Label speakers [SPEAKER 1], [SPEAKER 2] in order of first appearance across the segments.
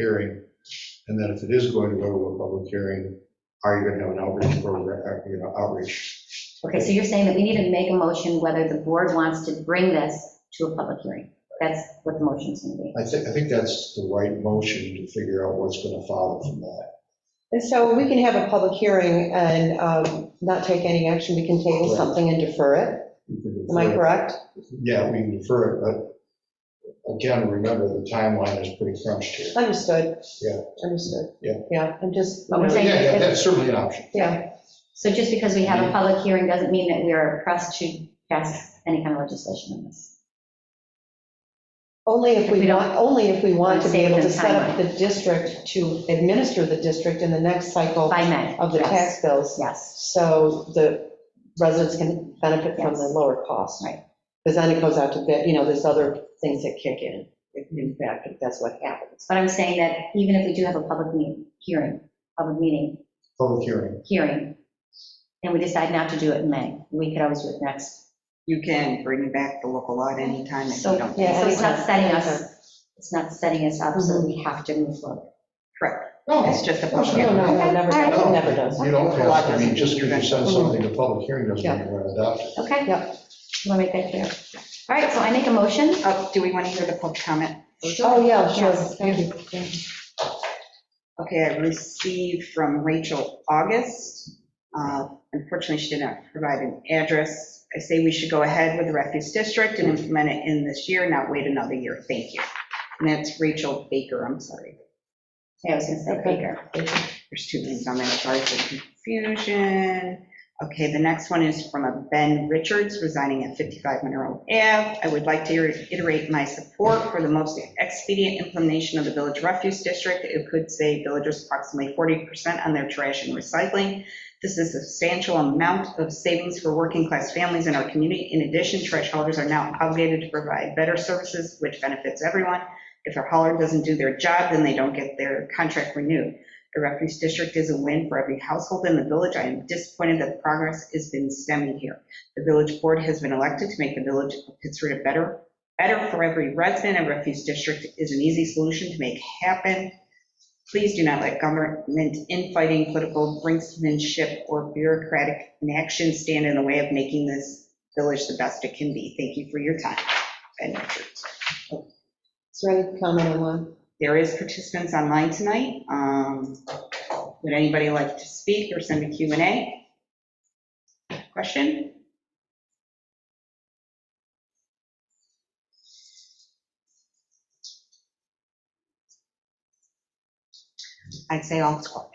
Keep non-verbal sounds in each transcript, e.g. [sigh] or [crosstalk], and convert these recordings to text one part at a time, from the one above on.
[SPEAKER 1] hearing? And then if it is going to go to a public hearing, are you going to have an outreach program, uh, you know, outreach?
[SPEAKER 2] Okay, so you're saying that we need to make a motion whether the board wants to bring this to a public hearing. That's what the motion's going to be.
[SPEAKER 1] I think, I think that's the right motion to figure out what's going to follow from that.
[SPEAKER 3] And so we can have a public hearing and um, not take any action, we can table
[SPEAKER 1] Right.
[SPEAKER 3] something and defer it,
[SPEAKER 1] You can
[SPEAKER 3] am I
[SPEAKER 1] defer it.
[SPEAKER 3] correct?
[SPEAKER 1] Yeah, we can defer it, but again, remember the timeline is pretty crunched here.
[SPEAKER 3] Understood.
[SPEAKER 1] Yeah.
[SPEAKER 3] Understood.
[SPEAKER 1] Yeah.
[SPEAKER 3] Yeah, I'm just,
[SPEAKER 2] But we're
[SPEAKER 1] Yeah,
[SPEAKER 2] saying-
[SPEAKER 1] yeah, that's certainly an option.
[SPEAKER 3] yeah,
[SPEAKER 2] So just because we have a public hearing doesn't mean that we are pressed to pass any kind of legislation on this.
[SPEAKER 3] only if
[SPEAKER 2] We
[SPEAKER 3] we
[SPEAKER 2] don't-
[SPEAKER 3] want, only if we want to be able to
[SPEAKER 2] Save the
[SPEAKER 3] set up the district to administer the district in the next cycle
[SPEAKER 2] By May.
[SPEAKER 3] of the
[SPEAKER 2] yes,
[SPEAKER 3] tax bills,
[SPEAKER 2] Yes,
[SPEAKER 3] so the residents can benefit from the
[SPEAKER 2] Yes.
[SPEAKER 3] lower cost.
[SPEAKER 2] Right.
[SPEAKER 3] Because then it goes out to bid, you know, there's other things that kick in, in fact, if that's what happens.
[SPEAKER 2] but I'm saying that even if we do have a public meeting, hearing, public meeting,
[SPEAKER 1] Public hearing,
[SPEAKER 2] hearing, and we decide not to do it in May, we could always do it next.
[SPEAKER 4] You can bring back the local law at any time if
[SPEAKER 2] So
[SPEAKER 4] you don't.
[SPEAKER 3] Yeah,
[SPEAKER 2] so it's not
[SPEAKER 3] anytime,
[SPEAKER 2] setting
[SPEAKER 3] anytime.
[SPEAKER 2] us, it's not setting us up, so we have to move forward.
[SPEAKER 4] Correct.
[SPEAKER 1] no,
[SPEAKER 4] It's just a
[SPEAKER 1] No,
[SPEAKER 4] public
[SPEAKER 3] No, no,
[SPEAKER 4] hearing.
[SPEAKER 3] no, never,
[SPEAKER 2] Okay,
[SPEAKER 3] does,
[SPEAKER 1] all right.
[SPEAKER 3] never does.
[SPEAKER 1] you don't have, I mean, just because you send
[SPEAKER 3] Mm-hmm.
[SPEAKER 1] something to public hearing doesn't mean you're going to adopt it.
[SPEAKER 2] Okay?
[SPEAKER 3] Yep.
[SPEAKER 2] You want to make that clear? All right, so I make a motion.
[SPEAKER 4] Oh, Do we want to hear the public comment?
[SPEAKER 3] Oh, yeah, sure,
[SPEAKER 2] Yes.
[SPEAKER 3] thank you.
[SPEAKER 4] Okay, I received from Rachel August. Uh, Unfortunately, she did not provide an address. I say we should go ahead with the refuse district and implement it in this year, not wait another year. Thank you. And that's Rachel Baker, I'm sorry.
[SPEAKER 2] Yeah, I was going to say
[SPEAKER 3] Okay.
[SPEAKER 2] Baker.
[SPEAKER 4] There's two names on there, sorry for the confusion. Okay, the next one is from a Ben Richards resigning at 55 Monroe Ave. I would like to reiterate my support for the most expedient implementation of the Village Refuse District. It could save villagers approximately 40% on their trash and recycling. This is a substantial amount of savings for working-class families in our community. In addition, trash haulers are now obligated to provide better services, which benefits everyone. If a hauler doesn't do their job, then they don't get their contract renewed. The refuse district is a win for every household in the village. I am disappointed that progress has been stemming here. The village board has been elected to make the village of Pittsburgh better, better for every resident. A refuse district is an easy solution to make happen. Please do not let government infighting, political brinksmanship, or bureaucratic inaction stand in the way of making this village the best it can be. Thank you for your time. Ben Richards.
[SPEAKER 3] Is there any comment on one?
[SPEAKER 4] There is participants online tonight. Um, Would anybody like to speak or send a Q and A? Question? I'd say all squad.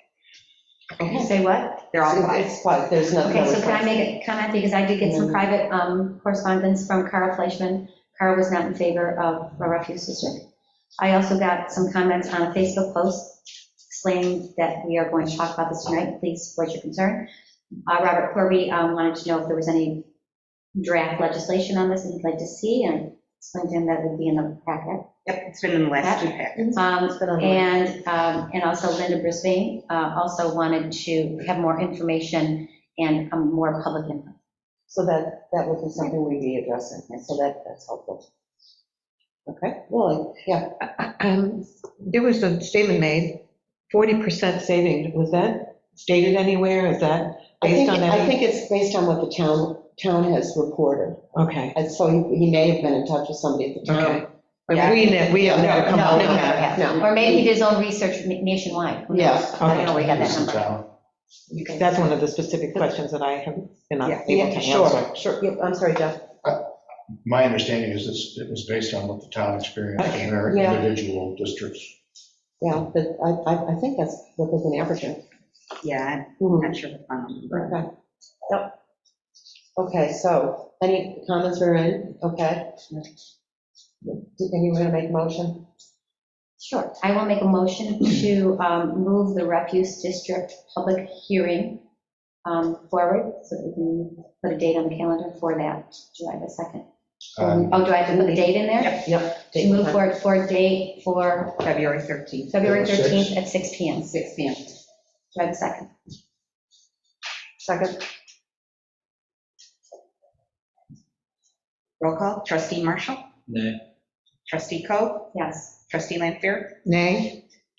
[SPEAKER 2] You say what?
[SPEAKER 4] They're all five.
[SPEAKER 3] It's quiet, there's nothing.
[SPEAKER 2] Okay, so can I make a comment, because I did get some private um, correspondence from Carl Fleischman. Carl was not in favor of a refuse district. I also got some comments on a Facebook post explaining that we are going to talk about this tonight, please voice your concern. Uh, Robert Corby um, wanted to know if there was any draft legislation on this that he'd like to see, and explained to him that would be in the packet.
[SPEAKER 4] Yep, it's been in the last two packets.
[SPEAKER 2] Um,
[SPEAKER 3] It's been on the-
[SPEAKER 2] And, um, and also Linda Brisbane uh, also wanted to have more information and um, more public input.
[SPEAKER 3] So that, that would be something we'd be addressing, and so that, that's helpful. Okay, Lily, yeah.
[SPEAKER 5] [clears throat] Um, There was a statement made, 40% saving, was that stated anywhere, is that
[SPEAKER 3] I
[SPEAKER 5] based
[SPEAKER 3] think,
[SPEAKER 5] on
[SPEAKER 3] I
[SPEAKER 5] any?
[SPEAKER 3] think it's based on what the town, town has reported,
[SPEAKER 5] Okay,
[SPEAKER 3] and so he he may have been in touch with somebody at the
[SPEAKER 5] okay.
[SPEAKER 3] town.
[SPEAKER 5] But we, ne- we have never come
[SPEAKER 2] No,
[SPEAKER 5] out
[SPEAKER 2] no,
[SPEAKER 5] with
[SPEAKER 2] no,
[SPEAKER 5] that.
[SPEAKER 2] yeah.
[SPEAKER 3] no.
[SPEAKER 2] Or maybe he did his own research na- nationwide. Who knows?
[SPEAKER 3] Yes,
[SPEAKER 2] I don't know where he got that
[SPEAKER 1] It's in
[SPEAKER 2] number.
[SPEAKER 1] town.
[SPEAKER 5] That's one of the specific questions that I have been
[SPEAKER 3] Yeah,
[SPEAKER 5] unable to
[SPEAKER 3] yeah,
[SPEAKER 5] answer.
[SPEAKER 3] sure, sure, yeah, I'm sorry, Jeff.
[SPEAKER 1] My understanding is this, it was based on what the town experienced in their
[SPEAKER 3] Yeah.
[SPEAKER 1] individual districts.
[SPEAKER 3] Yeah, but I, I, I think that's what was an average.
[SPEAKER 4] Yeah, I'm
[SPEAKER 5] Mm-hmm.
[SPEAKER 3] Mhm,
[SPEAKER 4] not sure the final number.
[SPEAKER 3] Okay, yep. Okay, so, any comments or in, okay? Anyone want to make a motion?
[SPEAKER 2] Sure. I will make a motion to um, move the refuse district public hearing um, forward so that we can put a date on the calendar for that. Do I have a second?
[SPEAKER 1] Um,
[SPEAKER 2] Oh, do I have to put a date in there?
[SPEAKER 4] Yep.
[SPEAKER 3] Yep.
[SPEAKER 2] To move forward for a date for
[SPEAKER 4] February 13th,
[SPEAKER 2] February
[SPEAKER 1] At six?
[SPEAKER 2] 13th at 6 PM. Do
[SPEAKER 4] 6 PM.
[SPEAKER 2] I have a second?
[SPEAKER 3] Second,
[SPEAKER 4] Roll call, trustee Marshall,
[SPEAKER 6] Nay.
[SPEAKER 4] trustee Coe,
[SPEAKER 2] Yes.
[SPEAKER 4] trustee Lanfair,
[SPEAKER 5] Nay?